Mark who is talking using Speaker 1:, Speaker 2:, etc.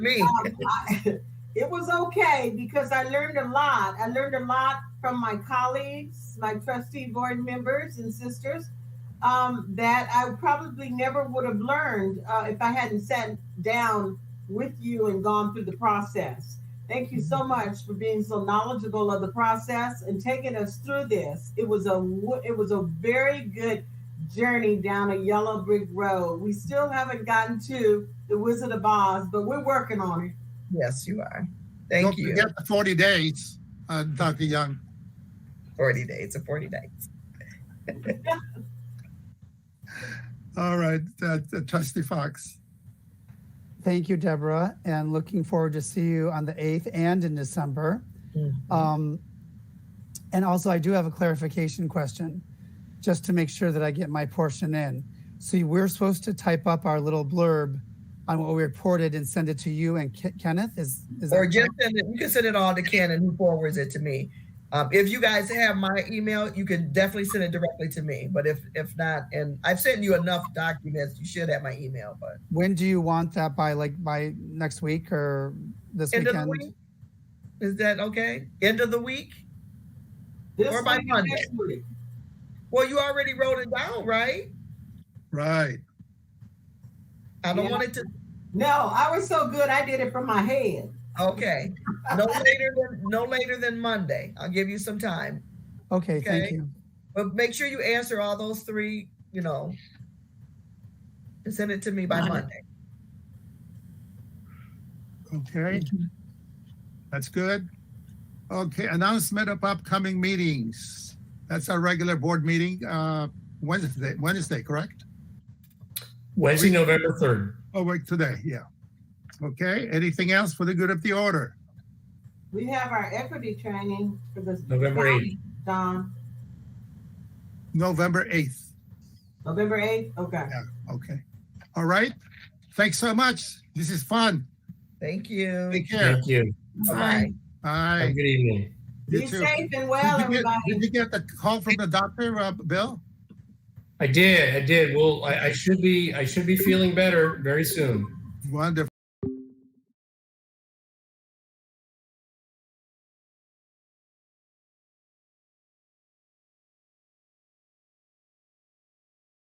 Speaker 1: Me.
Speaker 2: I- it was okay because I learned a lot. I learned a lot from my colleagues, my trustee board members and sisters um, that I probably never would have learned uh, if I hadn't sat down with you and gone through the process. Thank you so much for being so knowledgeable of the process and taking us through this. It was a wo- it was a very good journey down a yellow brick road. We still haven't gotten to the Wizard of Oz, but we're working on it.
Speaker 1: Yes, you are. Thank
Speaker 3: Don't
Speaker 1: you.
Speaker 3: forget the 40 days, uh, Dr. Young.
Speaker 1: 40 days, a 40 days.
Speaker 3: All right, uh, Trustee Fox.
Speaker 4: Thank you, Deborah, and looking forward to see you on the 8th and in December.
Speaker 1: Mhm.
Speaker 4: Um, and also, I do have a clarification question, just to make sure that I get my portion in. See, we're supposed to type up our little blurb on what we reported and send it to you and Ke- Kenneth. Is is that
Speaker 1: Or just send it, you can send it all to Ken and he forwards it to me. Um, if you guys have my email, you can definitely send it directly to me. But if if not, and I've sent you enough documents, you should have my email. But
Speaker 4: when do you want that by? Like by next week or this
Speaker 1: end of the
Speaker 4: weekend?
Speaker 1: week, is that okay? End of the week?
Speaker 2: This
Speaker 1: Or by
Speaker 2: week and
Speaker 1: Monday.
Speaker 2: next week.
Speaker 1: Well, you already wrote it down, right?
Speaker 3: Right.
Speaker 1: I don't
Speaker 2: Yeah.
Speaker 1: want it to.
Speaker 2: No, I was so good. I did it from my head.
Speaker 1: Okay, no later than no later than Monday. I'll give you some time,
Speaker 4: Okay, thank
Speaker 1: Okay.
Speaker 4: you.
Speaker 1: but make sure you answer all those three. You know, and send it to me by
Speaker 2: Monday.
Speaker 1: Monday.
Speaker 3: Okay. That's good. Okay, announcement of upcoming meetings. That's our regular board meeting, uh, Wednesday, Wednesday, correct?
Speaker 5: Wednesday, November 3rd.
Speaker 3: Oh, wait, today, yeah. Okay, anything else for the good of the order?
Speaker 2: We have our equity training for this
Speaker 5: November 8th.
Speaker 2: Don,
Speaker 3: November 8th,
Speaker 2: November 8th. Okay.
Speaker 3: okay. All right, thanks so much. This is fun.
Speaker 1: Thank you.
Speaker 3: Take care.
Speaker 5: Thank you.
Speaker 1: Bye.
Speaker 5: Have a
Speaker 3: Bye.
Speaker 5: good evening.
Speaker 3: You
Speaker 2: Be
Speaker 3: too.
Speaker 2: safe and well,
Speaker 3: Did you get-
Speaker 2: everybody.
Speaker 3: did you get the call from the doctor, uh, Bill?
Speaker 5: I did, I did. Well, I, I should be, I should be feeling better very soon.
Speaker 3: Wonderful.